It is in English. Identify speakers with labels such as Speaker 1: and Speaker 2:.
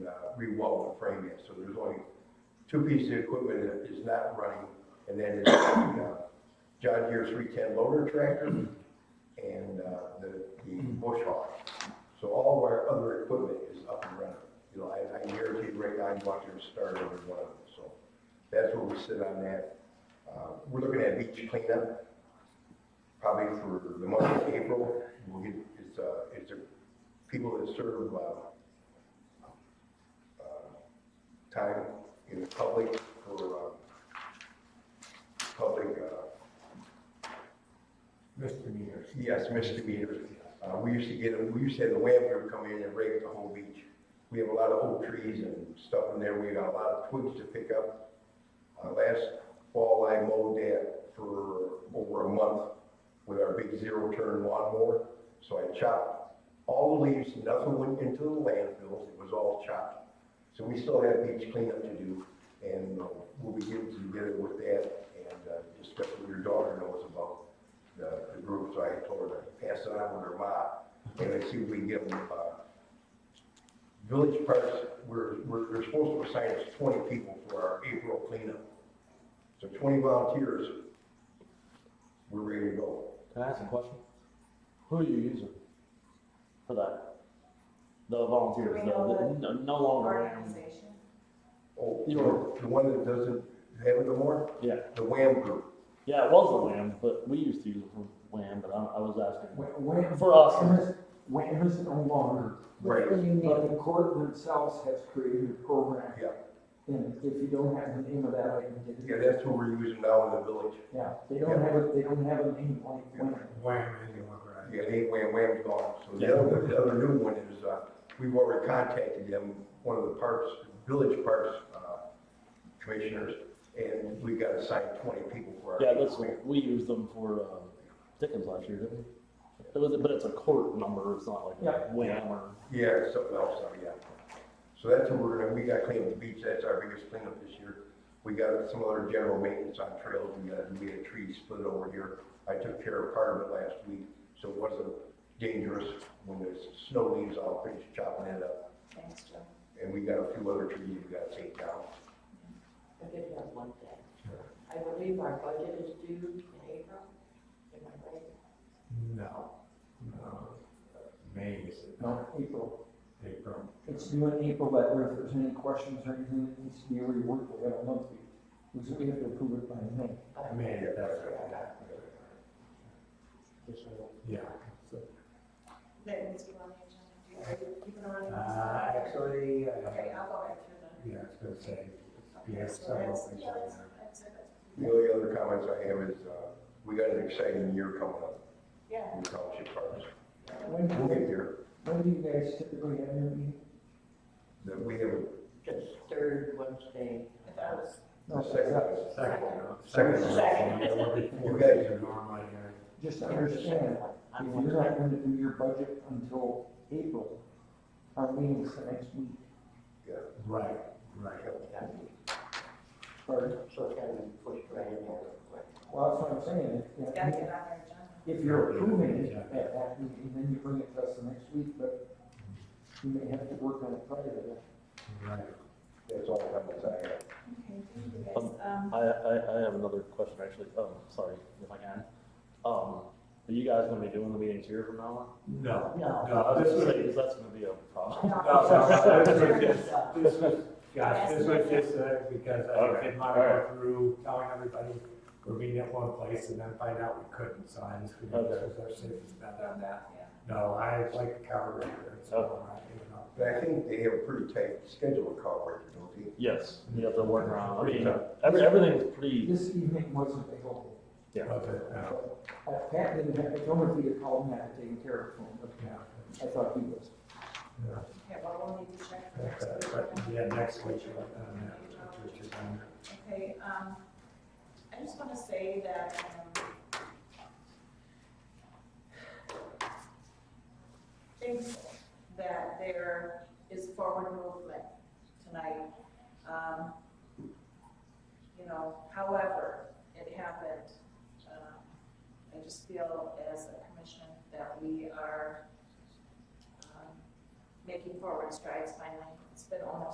Speaker 1: reweld uh, the frame yet, so there's only two pieces of equipment that is not running, and that is the uh, John Deere three-ten loader tractor and uh, the, the bush hog. So all of our other equipment is up and running. You know, I, I guarantee right now, I'd watch them start every one of them, so that's where we sit on that. Uh, We're looking at beach cleanup, probably for the month of April. We'll get, it's, uh, it's a, people that serve, uh, time in the public for, um, public, uh,
Speaker 2: misdemeanors.
Speaker 1: yes, misdemeanors. Uh, we used to get, 'em- we used to have the wham group come in and rake the whole beach. We have a lot of old trees and stuff in there, we got a lot of twigs to pick up. Uh, last fall, I mowed that for over a month with our big zero turn lawnmower. So I chopped all the leaves, nothing went into the landfills, it was all chopped. So we still have beach cleanup to do, and uh, we'll be getting together with that, and uh, just let your daughter knows about the, the group, so I told her to pass it on with her mom, and let's see if we can get them, uh, village parks, we're, we're, we're supposed to assign us twenty people for our April cleanup. So twenty volunteers, we're ready to go.
Speaker 3: Can I ask a question? Who are you using for that? The volunteers,
Speaker 4: Do we know
Speaker 3: no,
Speaker 4: the
Speaker 3: no, no longer.
Speaker 4: Organization.
Speaker 1: Oh,
Speaker 3: You are-
Speaker 1: the one that doesn't have it no more,
Speaker 3: Yeah,
Speaker 1: the WAM group.
Speaker 3: yeah, it was a WAM, but we used to use it for WAM, but I, I was asking.
Speaker 2: When,
Speaker 3: For us.
Speaker 2: When is no longer,
Speaker 1: Right.
Speaker 2: but the court themselves has created a program.
Speaker 1: Yeah.
Speaker 2: And if you don't have the name of that, I can get
Speaker 1: Yeah,
Speaker 2: it.
Speaker 1: that's what we're using now in the village.
Speaker 2: Yeah, they don't have it, they don't have a name like when.
Speaker 5: Wham, anyone, right?
Speaker 1: Yeah, they, Wham, Wham's gone. So the
Speaker 3: Yeah.
Speaker 1: other, the other new one is, uh, we've already contacted them, one of the parks, village parks, uh, commissioners, and we got assigned twenty people for our.
Speaker 3: Yeah, that's, we used them for, um, Dickens last year, didn't we? It was, but it's a court number, it's not like a
Speaker 2: Yeah.
Speaker 3: WAM or,
Speaker 1: Yeah, something else, uh, yeah. So that's what we're gonna, we gotta clean up the beach, that's our biggest cleanup this year. We got some other general maintenance on trails, we got, we had trees split over here. I took care of part of it last week, so it wasn't dangerous when the snow leaves, I'll finish chopping it up.
Speaker 4: Thanks, Joe.
Speaker 1: And we got a few other trees we gotta take down.
Speaker 6: I did have one thing. I believe our budget is due in April, am I right?
Speaker 5: No, no. May is
Speaker 2: No, April.
Speaker 5: April.
Speaker 2: It's due in April, but if there's any questions or anything that needs to be reworked, we have a month. We we have to approve it by May.
Speaker 5: May,
Speaker 1: Yeah,
Speaker 5: that's
Speaker 1: that's
Speaker 5: right.
Speaker 1: right.
Speaker 5: Yeah.
Speaker 4: That needs to be on the agenda. Do you- are you keeping on?
Speaker 5: Uh, actually, uh,
Speaker 4: Okay, I'll go right through
Speaker 5: yeah, I was gonna say,
Speaker 4: them.
Speaker 5: Yeah,
Speaker 4: Okay,
Speaker 5: it's
Speaker 4: so
Speaker 5: not
Speaker 4: that's-
Speaker 5: open,
Speaker 4: yeah,
Speaker 5: so-
Speaker 4: that's- that's it.
Speaker 1: The only other comments I have is, uh, we got an exciting year coming up
Speaker 4: Yeah.
Speaker 1: in township parks.
Speaker 2: When,
Speaker 1: We'll get there,
Speaker 2: when do you guys typically have your meeting?
Speaker 1: that we have
Speaker 6: Just third Wednesday.
Speaker 4: I thought it was-
Speaker 2: No,
Speaker 1: a
Speaker 2: it's not.
Speaker 1: second,
Speaker 5: Second.
Speaker 1: Second.
Speaker 5: Yeah, we're before
Speaker 1: You guys-
Speaker 5: the normal year.
Speaker 2: Just understand, If
Speaker 6: I'm
Speaker 2: you're not gonna do your budget until April, our meeting's the next week,
Speaker 5: Right, right.
Speaker 2: or,
Speaker 6: So it's gotta be pushed right in there real quick.
Speaker 2: well, that's what I'm saying,
Speaker 4: It's
Speaker 2: if,
Speaker 4: gotta
Speaker 2: if-
Speaker 4: get on our agenda.
Speaker 2: if you're approving it at that meeting, then you bring it to us the next week, but you may have to work on it prior
Speaker 5: Right.
Speaker 1: that's all comments I have.
Speaker 4: Okay, thank you
Speaker 3: Um,
Speaker 4: guys. Um,
Speaker 3: I, I, I have another question actually, um, sorry, if I can. Um, are you guys gonna be doing the meetings here from now on?
Speaker 5: No,
Speaker 6: No.
Speaker 3: I
Speaker 5: no,
Speaker 3: was
Speaker 5: this
Speaker 3: gonna
Speaker 5: was,
Speaker 3: say, 'cause that's gonna be a problem.
Speaker 4: no.
Speaker 5: no, no, this was just,
Speaker 6: Yeah.
Speaker 5: this was, gosh, this was just, uh, because I did my way through telling everybody we're meeting at one place and then find out we couldn't, so I just, figured this was our safest bet on that.
Speaker 4: Yeah.
Speaker 5: No, I like the cover record, so I, you know.
Speaker 1: But I think they have a pretty tight schedule of call record, don't they?
Speaker 3: Yes, you have to work around, I mean, every, everything's
Speaker 2: to that.
Speaker 3: pretty,
Speaker 2: This evening wasn't available.
Speaker 5: Love it, yeah,
Speaker 2: Uh, Pat didn't have, I told her if he had called Matt, taken care of him,
Speaker 5: yeah,
Speaker 2: but I thought he was.
Speaker 4: Okay, well, we'll need to check for
Speaker 5: that's,
Speaker 4: next
Speaker 5: uh,
Speaker 4: week.
Speaker 5: but,
Speaker 4: then.
Speaker 5: yeah, next week, you're like, um, yeah, which is, um,
Speaker 4: Okay, um, I just wanna say that, um, thankful that there is forward movement tonight. Um, you know, however, it happened, um, I just feel as a commission that we are, um, making forward strides finally. It's been almost